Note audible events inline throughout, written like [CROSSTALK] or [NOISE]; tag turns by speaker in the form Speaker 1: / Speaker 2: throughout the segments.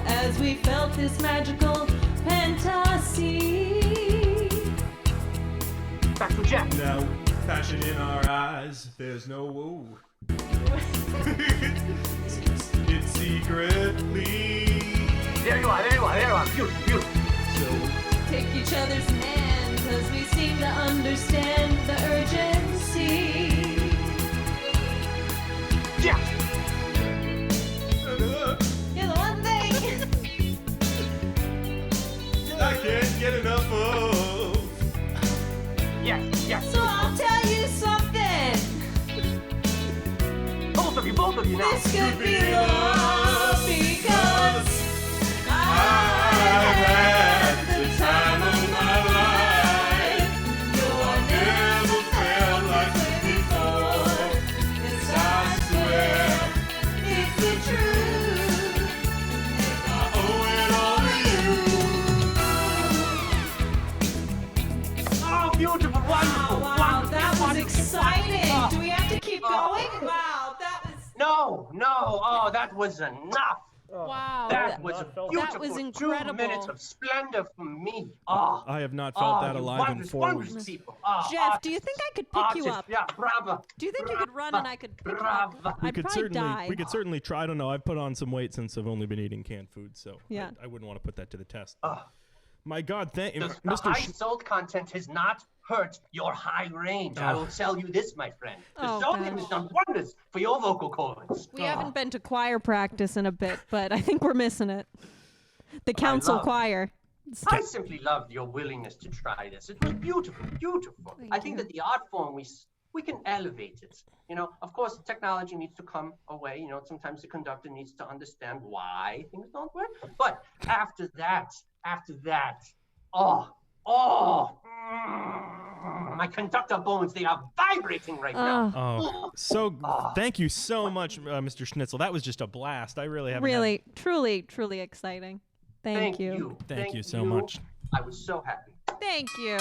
Speaker 1: as we felt this magical fantasy. [LAUGHS]
Speaker 2: Back to Jack.
Speaker 3: Now, passion in our eyes, there's no woo. [LAUGHS] it's secretly.
Speaker 2: There you are, there you are, there you are. Beautiful, beautiful.
Speaker 3: So
Speaker 1: Take each other's hands as we seem to understand the urgency.
Speaker 2: Jack.
Speaker 1: You're the one thing. [LAUGHS]
Speaker 3: I can't get enough of.
Speaker 2: Yes, yes.
Speaker 1: So I'll tell you something.
Speaker 2: Both of you, both of you now.
Speaker 1: This could be love because
Speaker 3: I've
Speaker 1: I
Speaker 3: had
Speaker 1: had the time of my life. No one ever felt like this before. Yes, I swear it's the truth.
Speaker 3: I owe it all to
Speaker 2: Oh, beautiful, wonderful,
Speaker 1: Oh, Wow,
Speaker 2: wonderful,
Speaker 1: that was
Speaker 2: wonderful,
Speaker 1: exciting.
Speaker 2: wonderful.
Speaker 1: Do we have to keep going? Wow, that was.
Speaker 2: No, no. Oh, that was enough.
Speaker 4: Wow.
Speaker 2: That was
Speaker 5: That
Speaker 2: beautiful.
Speaker 5: was
Speaker 4: incredible.
Speaker 2: Two minutes of splendor for me. Oh,
Speaker 3: I have not
Speaker 2: oh,
Speaker 3: felt that
Speaker 2: you
Speaker 3: alive in
Speaker 2: wondrous,
Speaker 3: four
Speaker 2: wondrous
Speaker 3: weeks.
Speaker 2: people. Oh,
Speaker 4: Jeff, do you think I could pick you
Speaker 2: artists,
Speaker 4: up?
Speaker 2: Yeah, bravo.
Speaker 4: Do you think you could run and I could pick you up?
Speaker 2: Bravo.
Speaker 4: I'd
Speaker 3: could
Speaker 4: probably
Speaker 3: certainly
Speaker 4: die.
Speaker 3: we could certainly try. I don't know. I've put on some weight since I've only been eating canned food, so I-
Speaker 4: Yeah.
Speaker 3: I, wouldn't want to put that to the test. My God, thank
Speaker 2: Does the
Speaker 3: Mr.
Speaker 2: high
Speaker 3: Sh-
Speaker 2: salt content has not hurt your high range. I will tell you this, my friend. The
Speaker 4: Oh,
Speaker 2: sodium
Speaker 4: God.
Speaker 2: has done wonders for your vocal cords.
Speaker 4: We haven't been to choir practice in a bit, but I think we're missing it. The council
Speaker 2: love-
Speaker 4: choir.
Speaker 2: I simply loved your willingness to try this. It was beautiful, beautiful. I think that the art form we s- we can elevate it. You know, of course, technology needs to come away. You know, sometimes the conductor needs to understand why things don't work. But after that, after that, oh, oh, mm, my conductor bones—they are vibrating right now. [LAUGHS]
Speaker 3: Oh, so thank you so much, uh, Mr. Schnitzel. That was just a blast. I really haven't. had-
Speaker 4: Really, truly, truly exciting. Thank, you.
Speaker 3: Thank you so much.
Speaker 2: I was so happy.
Speaker 4: Thank you.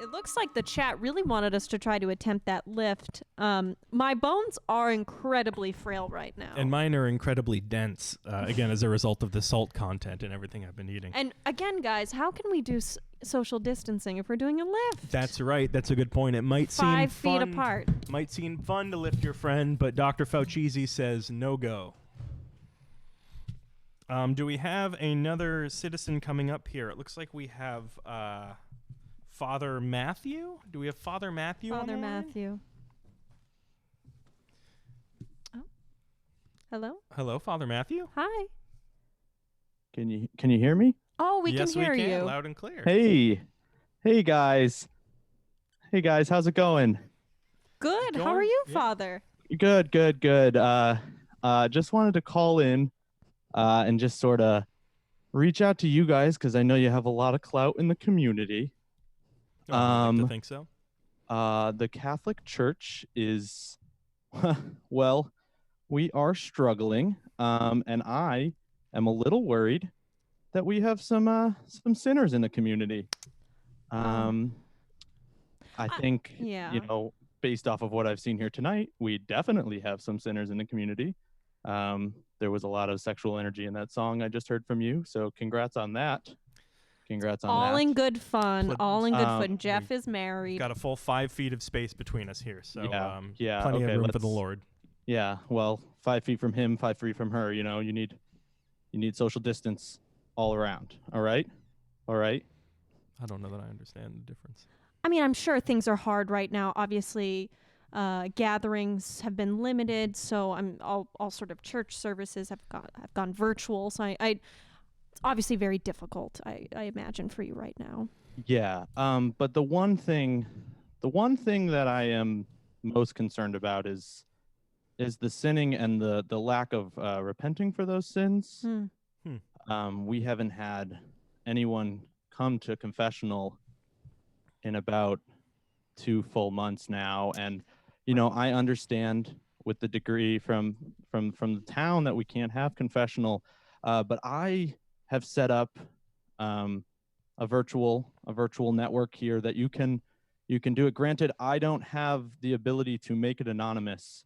Speaker 4: It looks like the chat really wanted us to try to attempt that lift. Um, my bones are incredibly frail right now.
Speaker 3: and mine are incredibly dense. Uh, again, as a result of the salt content and everything I've been eating.
Speaker 4: And again, guys, how can we do s- social distancing if we're doing a lift?
Speaker 3: That's right. That's a good point. It might
Speaker 4: Five
Speaker 3: seem
Speaker 4: feet
Speaker 3: fun-
Speaker 4: apart.
Speaker 3: Might seem fun to lift your friend, but Dr. Fauci says no go. Um, do we have another citizen coming up here? It looks like we have uh, Father Matthew. Do we have Father Matthew? on
Speaker 4: Father
Speaker 3: the line?
Speaker 4: Matthew. Oh. Hello?
Speaker 3: Hello, Father Matthew.
Speaker 4: Hi.
Speaker 5: Can you can you hear me?
Speaker 4: Oh, we
Speaker 3: yes,
Speaker 4: can hear
Speaker 3: we can,
Speaker 4: you.
Speaker 3: loud and clear.
Speaker 5: Hey, hey guys, hey guys, how's it going?
Speaker 4: Good. How
Speaker 3: Going?
Speaker 4: are you,
Speaker 3: Yeah.
Speaker 4: Father?
Speaker 5: Good, good, good. Uh, uh, just wanted to call in, uh, and just sort of reach out to you guys because I know you have a lot of clout in the community.
Speaker 3: Oh, I'd like to
Speaker 5: um,
Speaker 3: think so.
Speaker 5: Uh, the Catholic Church is, [LAUGHS] well, we are struggling, um, and I am a little worried that we have some uh, some sinners in the community. Um, I
Speaker 4: Oh. I-
Speaker 5: think
Speaker 4: yeah.
Speaker 5: you know, based off of what I've seen here tonight, we definitely have some sinners in the community. Um, there was a lot of sexual energy in that song I just heard from you, so congrats on that. Congrats on
Speaker 4: all
Speaker 5: that.
Speaker 4: in good fun.
Speaker 3: Pl-
Speaker 4: all in good
Speaker 5: um,
Speaker 4: fun. Jeff is married.
Speaker 3: Got a full five feet of space between us here, so
Speaker 5: Yeah,
Speaker 3: um,
Speaker 5: yeah,
Speaker 3: plenty
Speaker 5: okay,
Speaker 3: of room for the
Speaker 5: let's-
Speaker 3: Lord.
Speaker 5: Yeah, well, five feet from him, five feet from her. You know, you need, you need social distance all around. All right, all right.
Speaker 3: I don't know that I understand the difference.
Speaker 4: I mean, I'm sure things are hard right now. Obviously, uh, gatherings have been limited, so I'm all, all sort of church services have gone have gone virtual. So I, I it's obviously very difficult. I, I imagine for you right now.
Speaker 5: Yeah. Um. But the one thing, the one thing that I am most concerned about is, is the sinning and the the lack of uh, repenting for those sins.
Speaker 4: Hmm.
Speaker 5: Um. We haven't had anyone come to confessional in about two full months now and you know i understand with the degree from from from the town that we can't have confessional uh, but i have set up um, a virtual a virtual network here that you can you can do it granted i don't have the ability to make it anonymous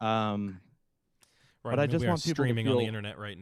Speaker 5: um,
Speaker 3: Right,
Speaker 5: But
Speaker 3: I,
Speaker 5: I
Speaker 3: mean,
Speaker 5: just
Speaker 3: we are
Speaker 5: want people to
Speaker 3: streaming on the
Speaker 5: feel-
Speaker 3: internet right